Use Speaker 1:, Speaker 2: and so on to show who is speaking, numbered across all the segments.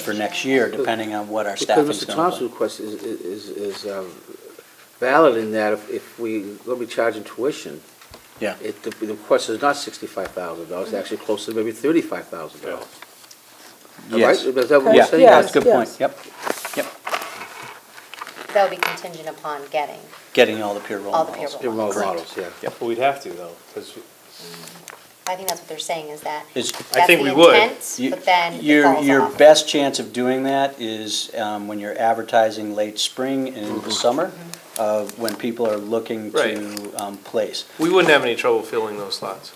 Speaker 1: for next year, depending on what our
Speaker 2: Because
Speaker 1: staffing's going
Speaker 2: Mr.
Speaker 1: to
Speaker 2: Thompson's
Speaker 1: be.
Speaker 2: request is, is, is um, valid in that if, if we, gonna be charging tuition,
Speaker 1: Yeah,
Speaker 2: it, the the request is not sixty-five thousand dollars, it's actually closer to maybe thirty-five thousand dollars.
Speaker 1: yes.
Speaker 2: Is that what
Speaker 1: Yeah,
Speaker 2: you're
Speaker 3: Yes,
Speaker 2: saying?
Speaker 1: yeah, that's a good
Speaker 3: yes.
Speaker 1: point, yep. Yep,
Speaker 4: That would be contingent upon getting.
Speaker 1: getting all the peer role
Speaker 4: All the peer
Speaker 1: models.
Speaker 4: role.
Speaker 2: Your role
Speaker 4: Correct.
Speaker 2: models, yeah.
Speaker 5: Well, we'd have to though, because
Speaker 4: I think that's what they're saying is that.
Speaker 1: It's-
Speaker 4: that's
Speaker 5: I think
Speaker 4: the
Speaker 5: we would.
Speaker 4: intent,
Speaker 1: You-
Speaker 4: But then it
Speaker 1: Your,
Speaker 4: falls
Speaker 1: your
Speaker 4: off.
Speaker 1: best chance of doing that is um, when you're advertising late spring and into
Speaker 5: Mm-hmm.
Speaker 1: the summer, uh, when people are looking to
Speaker 5: Right.
Speaker 1: um, place.
Speaker 5: we wouldn't have any trouble filling those slots.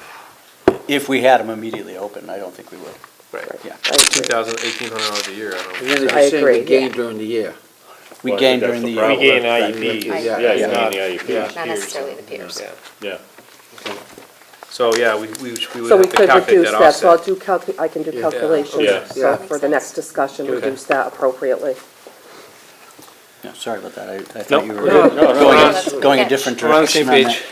Speaker 1: If we had them immediately open, I don't think we would,
Speaker 5: Right.
Speaker 1: yeah.
Speaker 3: I agree.
Speaker 5: Two thousand, eighteen hundred dollars a year, I
Speaker 2: And
Speaker 5: don't.
Speaker 2: then
Speaker 3: I
Speaker 2: you're saying
Speaker 3: agree,
Speaker 2: we
Speaker 3: yeah.
Speaker 2: gain during the year.
Speaker 1: We
Speaker 6: Well, I think
Speaker 1: gain
Speaker 6: that's
Speaker 1: during the
Speaker 6: the
Speaker 1: year.
Speaker 6: problem.
Speaker 5: We gain E.
Speaker 6: Right.
Speaker 5: IEPs.
Speaker 2: Yeah,
Speaker 6: Yeah, you
Speaker 2: yeah.
Speaker 6: need
Speaker 5: Yeah.
Speaker 6: IEPs.
Speaker 4: Not necessarily the peers.
Speaker 5: Yeah.
Speaker 6: Yeah.
Speaker 5: So, yeah, we, we we would
Speaker 3: So we
Speaker 5: have to
Speaker 3: could
Speaker 5: calculate
Speaker 3: reduce
Speaker 5: that
Speaker 3: that, so I'll
Speaker 5: offset.
Speaker 3: do calc, I can do
Speaker 2: Yeah.
Speaker 6: Yeah.
Speaker 3: calculations, so
Speaker 2: Yeah.
Speaker 3: for the next discussion,
Speaker 5: Okay.
Speaker 3: reduce that appropriately.
Speaker 1: Yeah, Sorry about that, I I
Speaker 5: Nope,
Speaker 1: thought you were
Speaker 5: we're good. No, no,
Speaker 1: going,
Speaker 4: no,
Speaker 1: a-
Speaker 4: no.
Speaker 1: going a
Speaker 4: Okay.
Speaker 1: different
Speaker 5: We're on the
Speaker 1: direction
Speaker 5: same
Speaker 1: on that.
Speaker 5: page.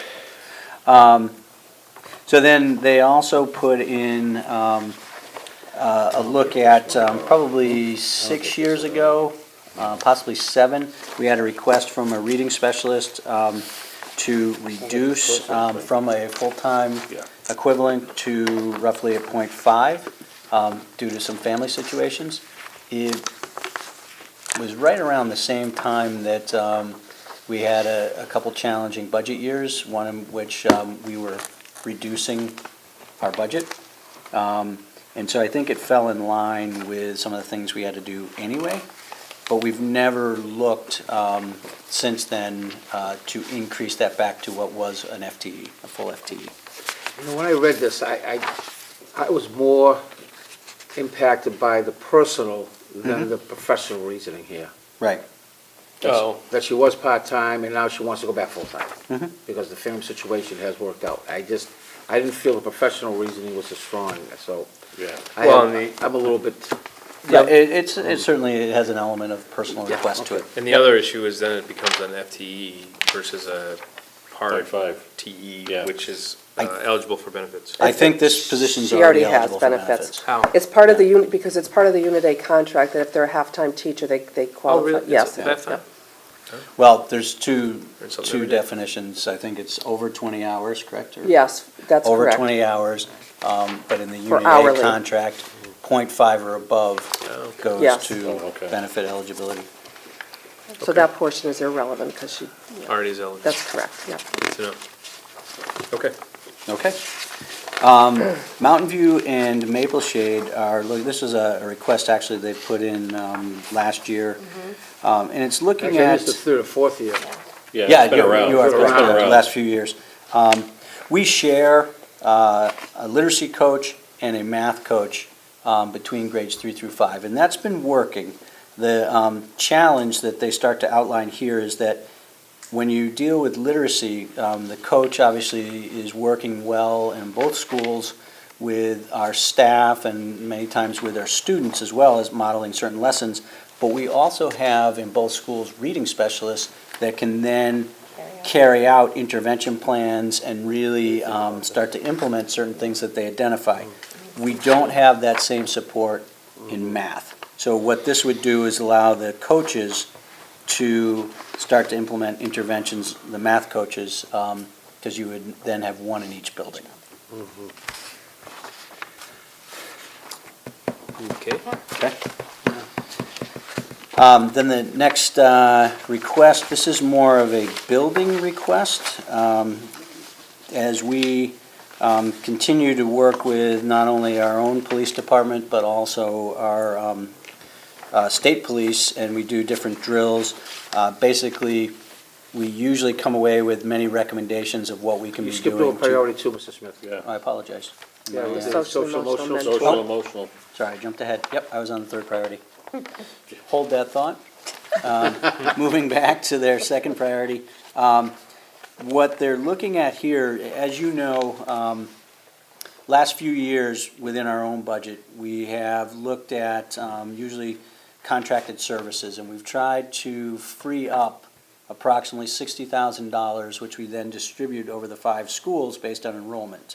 Speaker 1: So then they also put in um, uh, a look at um, probably six years ago, uh, possibly seven, we had a request from a reading specialist um, to reduce um, from a full-time
Speaker 6: Yeah.
Speaker 1: equivalent to roughly a point five um, due to some family situations. It was right around the same time that um, we had a, a couple challenging budget years, one in which um, we were reducing our budget. Um, And so I think it fell in line with some of the things we had to do anyway, but we've never looked um, since then uh, to increase that back to what was an FTE, a full E. FTE.
Speaker 2: You know, when I read this, I, I, I was more impacted by the personal than the professional reasoning here.
Speaker 1: Right.
Speaker 5: Oh,
Speaker 2: that she was part-time and now she wants to go back full-time.
Speaker 1: Mhm.
Speaker 2: Because the family situation has worked out. I just, I didn't feel the professional reasoning was as strong, so
Speaker 6: Yeah.
Speaker 2: I,
Speaker 5: Well, and
Speaker 2: am- I'm a little bit,
Speaker 1: Yeah, it, it's, it certainly has an element of personal
Speaker 2: Yeah,
Speaker 1: request to it.
Speaker 2: okay.
Speaker 5: and the other issue is then it becomes an FTE versus a part
Speaker 6: Point five.
Speaker 5: TE,
Speaker 6: Yeah.
Speaker 5: which is
Speaker 1: I-
Speaker 5: uh, eligible for benefits.
Speaker 1: I think this position's
Speaker 3: She already
Speaker 1: already
Speaker 3: has
Speaker 1: eligible for benefits.
Speaker 3: benefits.
Speaker 5: How?
Speaker 3: It's part of the unit, because it's part of the Unit A contract, that if they're a half-time teacher, they, they
Speaker 5: Oh, really?
Speaker 3: qualify,
Speaker 5: It's
Speaker 3: yes.
Speaker 5: That fine?
Speaker 1: Well, there's two,
Speaker 5: There's something
Speaker 1: two
Speaker 5: we did.
Speaker 1: definitions. I think it's over 20 hours, correct? Or-
Speaker 3: Yes, that's
Speaker 1: Over
Speaker 3: correct.
Speaker 1: 20 hours, um, but in the
Speaker 3: For
Speaker 1: UDA
Speaker 3: hourly.
Speaker 1: contract, .5 or above
Speaker 5: Oh, okay.
Speaker 1: goes
Speaker 3: Yes.
Speaker 6: Oh,
Speaker 1: to
Speaker 6: okay.
Speaker 1: benefit eligibility.
Speaker 3: So that portion is irrelevant, because she,
Speaker 5: Already is eligible.
Speaker 3: that's correct, yeah.
Speaker 5: Good to know. Okay.
Speaker 1: Okay. Um, Mountain View and Maple Shade are, look, this is a a request actually they put in um, last year.
Speaker 3: Mm-hmm.
Speaker 1: Um, And it's looking
Speaker 2: actually,
Speaker 1: at.
Speaker 2: it's the third or fourth year.
Speaker 6: Yeah,
Speaker 1: Yeah,
Speaker 6: it's been
Speaker 1: you
Speaker 6: around.
Speaker 1: you are
Speaker 6: It's been
Speaker 1: correct, the
Speaker 6: around.
Speaker 1: last few years. Um, We share uh, a literacy coach and a math coach um, between grades three through five, and that's been working. The um, challenge that they start to outline here is that when you deal with literacy, um, the coach obviously is working well in both schools with our staff and many times with our students as well as modeling certain lessons. But we also have in both schools reading specialists that can then carry out intervention plans and really um, start to implement certain things that they identify. We don't have that same support in math. So what this would do is allow the coaches to start to implement interventions, the math coaches, because you would then have one in each building.
Speaker 5: Okay.
Speaker 1: Okay. Um, Then the next uh, request, this is more of a building request. Um, As we um, continue to work with not only our own police department, but also our um, uh, state police, and we do different drills, uh, basically, we usually come away with many recommendations of what we can be
Speaker 2: You
Speaker 1: doing.
Speaker 2: skipped over
Speaker 1: to-
Speaker 2: priority two, Mr. Smith.
Speaker 1: I
Speaker 6: Yeah.
Speaker 1: apologize.
Speaker 2: Yeah,
Speaker 3: Yeah.
Speaker 2: with the
Speaker 3: Social,
Speaker 2: social,
Speaker 3: emotional,
Speaker 2: emotional.
Speaker 3: mental.
Speaker 6: Social, emotional.
Speaker 1: Sorry, I jumped ahead. Yep, I was on the third priority. Hold that thought. Um, Moving back to their second priority, um, what they're looking at here, as you know, um, last few years, within our own budget, we have looked at um, usually contracted services, and we've tried to free up approximately sixty thousand dollars, which we then distribute over the five schools based on enrollment.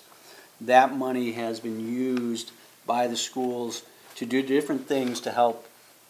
Speaker 1: That money has been used by the schools to do different things to help